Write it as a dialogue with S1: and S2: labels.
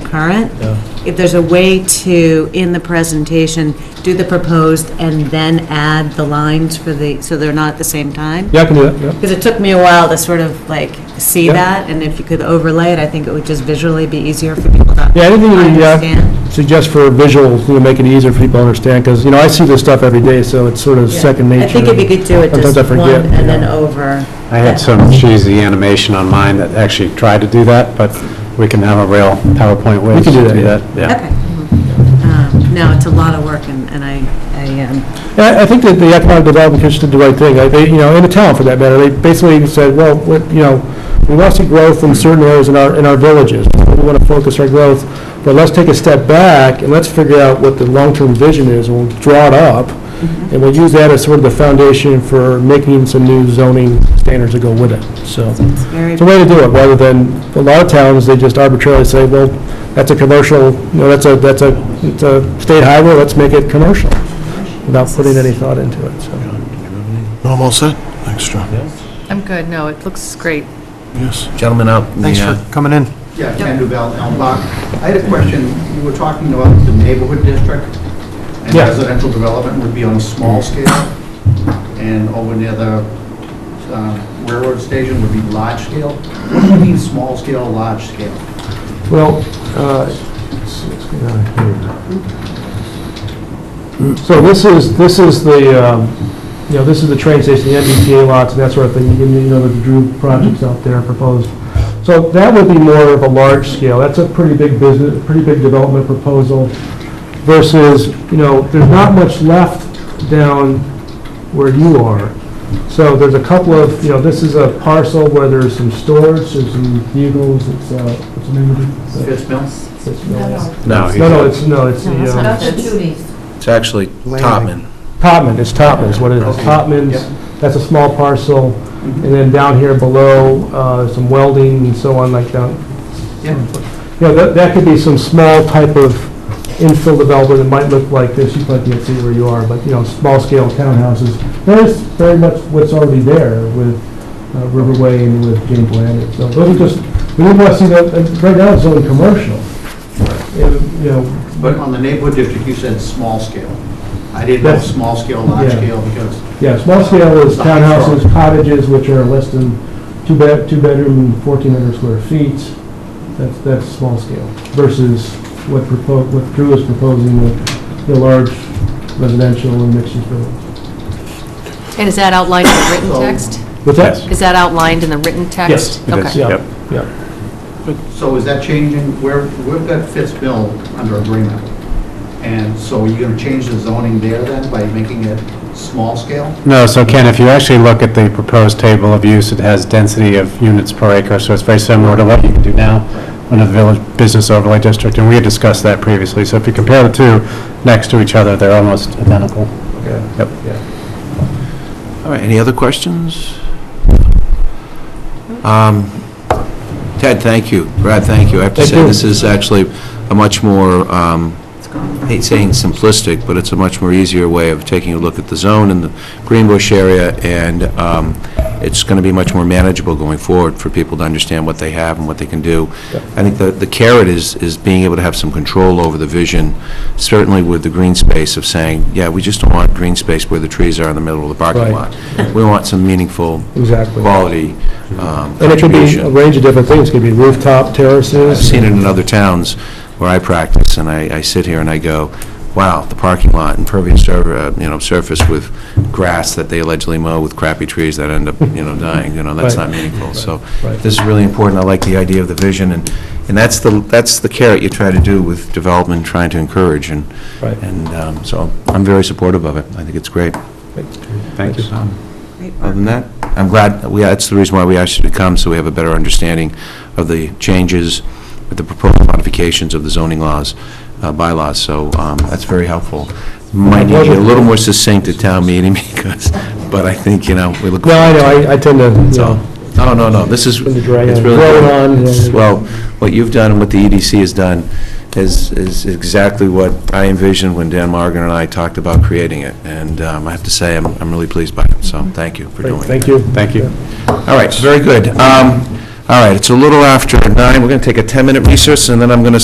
S1: concurrent.
S2: Yeah.
S1: If there's a way to, in the presentation, do the proposed and then add the lines for the, so they're not at the same time?
S2: Yeah, I can do that, yeah.
S1: Because it took me a while to sort of like see
S2: Yeah.
S1: that, and if you could overlay it, I think it would just visually be easier for people to
S2: Yeah, anything you,
S1: understand.
S2: yeah, suggest for visual, you know, make it easier for people to understand, because, you know, I see this stuff every day, so it's sort of second nature.
S1: I think if you could do it
S2: Sometimes
S1: just
S2: I
S1: one
S2: forget, you
S1: and then
S2: know.
S1: over.
S3: I had some cheesy animation on mine that actually tried to do that, but we can have a real PowerPoint way
S2: We
S3: to
S2: can do that,
S3: do
S2: yeah.
S3: that. Yeah.
S1: Okay. Um, No, it's a lot of work, and and I, I, um,
S2: Yeah, I think that the Economic Development Commission did the right thing, I- they, you know, in the town for that matter, they basically said, well, what- you know, we want to see growth in certain areas in our, in our villages, we want to focus our growth, but let's take a step back and let's figure out what the long-term vision is, and we'll draw it up,
S1: Mm-hmm.
S2: and we'll use that as sort of the foundation for making some new zoning standards that go with it, so.
S1: it's very,
S2: It's a way to do it, rather than, a lot of towns, they just arbitrarily say, well, that's a commercial, you know, that's a, that's a, it's a state highway, let's make it commercial, without putting any thought into it, so.
S4: No, I'm all set. Thanks, John.
S5: I'm good, no, it looks great.
S4: Yes.
S6: Gentlemen up. in the,
S3: Thanks
S6: uh,
S3: for coming in.
S7: Yeah, Ken Duval, Elm Block. I had a question. You were talking about the neighborhood district and
S2: Yeah.
S7: residential development would be on a small scale. And over near the uh, railroad station would be large scale. What do you mean, small scale, large scale?
S2: Well, uh, so this is, this is the, um, you know, this is the train station, the MBTA lots, and that sort of thing, you know, the Drew projects out there proposed. So that would be more of a large scale, that's a pretty big business, pretty big development proposal versus, you know, there's not much left down where you are. So there's a couple of, you know, this is a parcel where there's some storage, there's some vehicles, it's, uh, what's the name of it?
S7: Fitzmill?
S2: It's- no, it's-
S6: No,
S2: No, no,
S6: he's-
S2: it's, no, it's
S1: No, that's
S2: the,
S1: not
S2: uh,
S1: it.
S6: it's actually Topman.
S2: Topman, it's Topman is what it is.
S7: Okay.
S2: Topman's, that's a small parcel, and then down here below, uh, some welding and so on, like down,
S7: Yeah.
S2: you know, that, that could be some small type of infill development that might look like this, you might can't see where you are, but, you know, small-scale townhouses. That is very much what's already there with uh, Riverway and with James Land, so those are just, we didn't want to see that, and right now it's only commercial. And, You know,
S7: But on the neighborhood district, you said small scale. I didn't know
S2: That's-
S7: small scale, large
S2: yeah.
S7: scale because,
S2: yeah, small-scale is townhouses, cottages, which are less than two bed, two-bedroom, 1,400 square feet, that's, that's small-scale, versus what propo what Drew is proposing with the large residential and mixed-use buildings.
S5: And is that outlined in the written
S7: So-
S5: text?
S2: With
S3: that?
S5: Is that outlined in the written
S2: Yes,
S5: text?
S3: it is.
S5: Okay.
S2: Yeah,
S3: Yep.
S2: yeah.
S7: so is that changing? Where, we've got Fitzmill under agreement. And so are you going to change the zoning there then by making it small scale?
S3: No, so Ken, if you actually look at the proposed table of use, it has density of units per acre, so it's very similar to what you can do now under the Village Business Overlay District, and we had discussed that previously. So if you compare the two next to each other, they're almost identical. Yep.
S6: All right, any other questions? Um, Ted, thank you. Brad, thank you. I have to
S2: Thank
S6: say,
S2: you.
S6: this is actually a much more, um, I hate saying simplistic, but it's a much more easier way of taking a look at the zone and the Greenbush area, and um, it's going to be much more manageable going forward for people to understand what they have and what they can do. I think the the carrot is, is being able to have some control over the vision, certainly with the green space of saying, yeah, we just don't want green space where the trees are in the middle of the
S2: Right.
S6: parking lot. We want some meaningful
S2: Exactly.
S6: quality um,
S2: And it could be a
S6: contribution.
S2: range of different things, it could be rooftop
S6: I've
S2: terraces.
S6: seen it in other towns where I practice, and I, I sit here and I go, wow, the parking lot, impervious, sur- uh, you know, surface with grass that they allegedly mow with crappy trees that end up, you know, dying, you know, that's
S2: Right.
S6: not meaningful. So
S2: Right.
S6: this is really important, I like the idea of the vision, and, and that's the, that's the carrot you try to do with development, trying to encourage, and,
S2: Right.
S6: and um, so I'm very supportive of it, I think it's great.
S3: Thank you.
S6: Um,
S1: Great
S6: Other than that, I'm glad, we, that's the reason why we asked you to come, so we have a better understanding of the changes, of the proposed modifications of the zoning laws, uh, bylaws, so um, that's very helpful. Might need you a little more succinct at town meeting, because, but I think, you know, we look.
S2: No, I know, I- I tend to, you
S6: So,
S2: know,
S6: no, no, no, this is,
S2: Been the drag
S6: it's
S2: on.
S6: really.
S2: Roll it on,
S6: it's-
S2: yeah.
S6: Well, what you've done and what the EDC has done is, is exactly what I envisioned when Dan Morgan and I talked about creating it, and um, I have to say, I'm, I'm really pleased by it, so thank you for doing it.
S2: thank you.
S3: Thank you.
S6: All right, very good. Um, All right, it's a little after nine, we're going to take a 10-minute recess, and then I'm going to